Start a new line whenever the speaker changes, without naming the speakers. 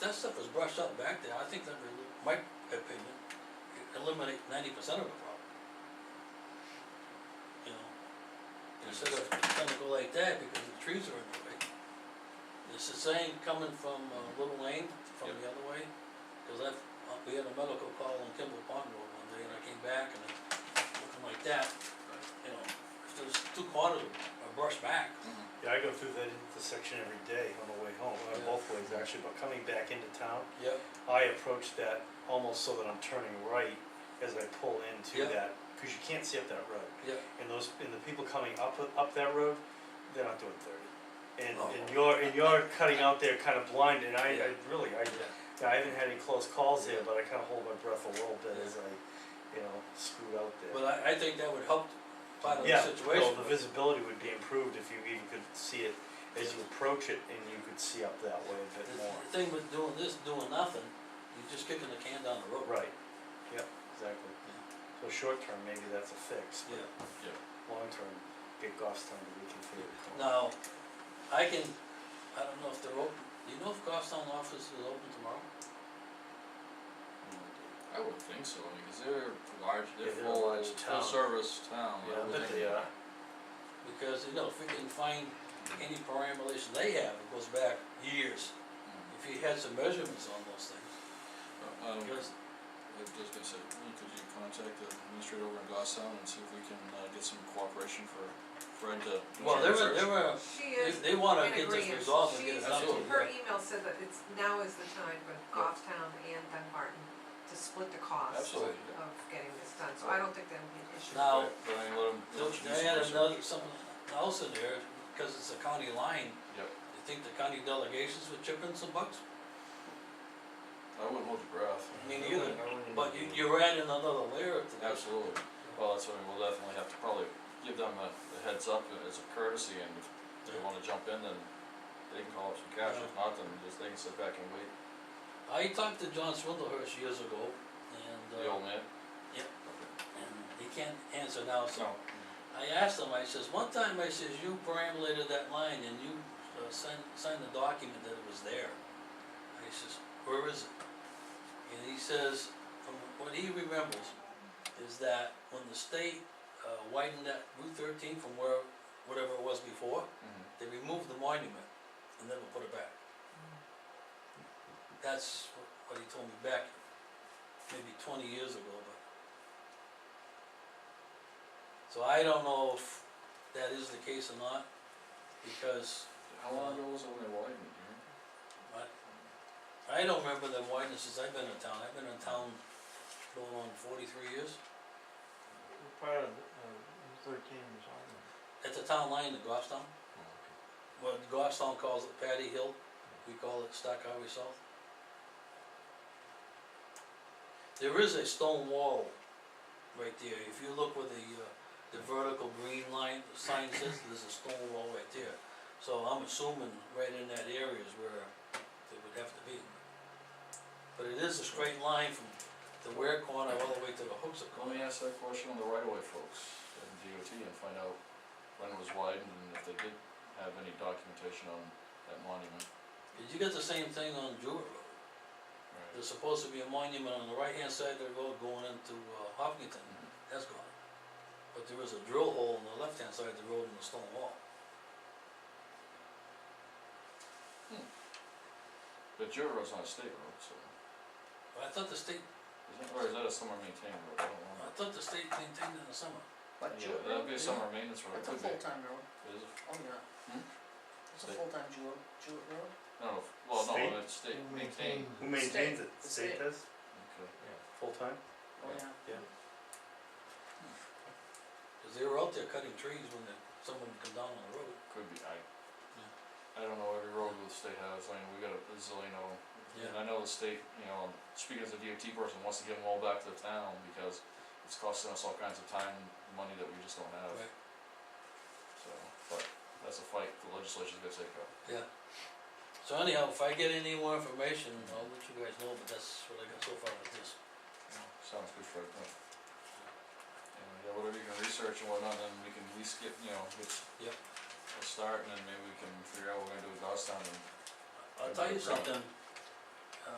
that stuff was brushed up back there, I think that would, my opinion, eliminate ninety percent of the problem. You know, instead of trying to go like that because the trees are in the way. It's the same coming from uh, Little Lane, from
Yep.
the other way, cause I've, uh, we had a medical call on Kimball Pond Road one day and I came back and it looking like that, you know, if there's two quarters are brushed back.
Yeah, I go through that intersection every day on the way home,
Yeah.
uh, both ways actually, but coming back into town,
Yep.
I approach that almost so that I'm turning right as I pull into
Yeah.
that, cause you can't see up that road.
Yep,
And those, and the people coming up, up that road, they're not doing thirty. And,
Oh.
and you're, and you're cutting out there kind of blind, and I, I
Yeah.
really, I,
yeah.
yeah, I haven't had any close calls there,
Yeah.
but I kinda hold my breath a little bit
Yeah.
as I, you know, screw out there.
But I, I think that would help part of the
Yeah,
situation.
well, the visibility would be improved if you even could see it as you approach it and you could see up that way a bit
The-
more.
The thing with doing this, doing nothing, you're just kicking the can down the road.
Right, yeah, exactly. So short term, maybe that's a fix,
Yeah,
long term, get Goffstown to reconfigure. it.
now, I can, I don't know if they're open, do you know if Goffstown office is open tomorrow?
I would think so, because they're large, they're
Yeah, they're a
full,
large town.
full service town,
Yeah,
I
I
would
bet they
think.
are.
Because, you know, if we can find any perambulation they have, it goes back years,
Mm.
if you had some measurements on those things,
Uh, Um,
because,
I was just gonna say, Lee, could you contact the administrator over in Goffstown and see if we can, uh, get some cooperation for Fred to. do
well,
some
they were,
research?
they were,
She
they,
is
they wanna
in
get this
agreement.
resolved and get it
She's-
done.
Absolutely.
Her email said that it's, now is the time with Goffstown and Dunbarton to split the cost
Absolutely, yeah.
of getting this done, so I don't think that'll be an issue.
Now,
But- But I let them.
Don't you add another, something else in there, because it's a county line,
Yep,
you think the county delegations would chip in some bucks?
I wouldn't hold your breath.
Me
I
neither,
wouldn't- I wouldn't
but you,
even-
you're adding another layer to that.
Absolutely, well, that's what we'll definitely have to probably give them a, a heads up as a courtesy, and if they wanna jump in, then they can call up some cash, if not, then just they can sit back and wait,
I talked to John Swindlehurst years ago, and,
the
uh,
old man.
Yep.
Okay.
and he can't answer now, so
No,
I asked him, I says, one time, I says, you perambulated that line and you, uh, signed, signed the document that it was there. I says, where is it? And he says, from what he remembers, is that when the state, uh, widened that Route thirteen from where, whatever it was before,
Mm-hmm.
mhm,
they removed the monument and never put it back. That's wh- what he told me back, maybe twenty years ago, but. So I don't know if that is the case or not, because
how long ago was it when they widened, it, you know?
I, I don't remember the wideness since I've been in town, I've been in town going on forty-three years.
Part of, uh, thirteen is on there.
At the town line in Goffstown,
Oh,
what Goffstown calls it Patty Hill, we call it Stock Highway South. There is a stone wall right there, if you look where the, uh, the vertical green line, the sign says, there's a stone wall right there. So I'm assuming right in that area is where they would have to be. But it is a straight line from the Ware corner all the way to the Hooksett corner.
Let me ask that question on the right of way folks at DOT and find out when it was widened and if they did have any documentation on that monument.
Did you get the same thing on Jewett Road?
Right.
There's supposed to be a monument on the right-hand side of the road going into uh, Hopkinton,
Mhm.
that's gone. But there is a drill hole on the left-hand side of the road in the stone wall.
But your road's not a state road, so,
But I thought the state,
is it, or is that a summer maintained road, I don't
I
know.
thought the state maintained it in the summer.
But
Yeah,
Jewett
that'd
Road,
be a
yeah.
summer maintenance road, it
it's a
could be,
full-time road,
It is-
oh yeah.
Hmm?
It's a
State.
full-time Jewett, Jewett Road. Oh,
no, no, well,
State?
no, it's state maintained,
Who maintains
State.
it?
The
State
state.
does,
okay.
full time?
Oh,
Yeah.
yeah.
Cause they were out there cutting trees when the, someone come down on the road.
Could be, I, I don't know every road that the state has, I mean, we got a zillion of them. And
Yeah.
I know the state, you know, speaking as a DOT person, wants to give them all back to the town because it's costing us all kinds of time and money that we just don't have,
Right,
so, but that's a fight the legislature's gonna take up.
yeah. So anyhow, if I get any more information, I'll let you guys know, but that's what I got so far with this.
Sounds good, Fred, yeah. And, yeah, whatever you can research and whatnot, then we can at least get, you know, get
Yep.
a start and then maybe we can figure out what we're gonna do with Goffstown and
I'll tell you
Right.
something,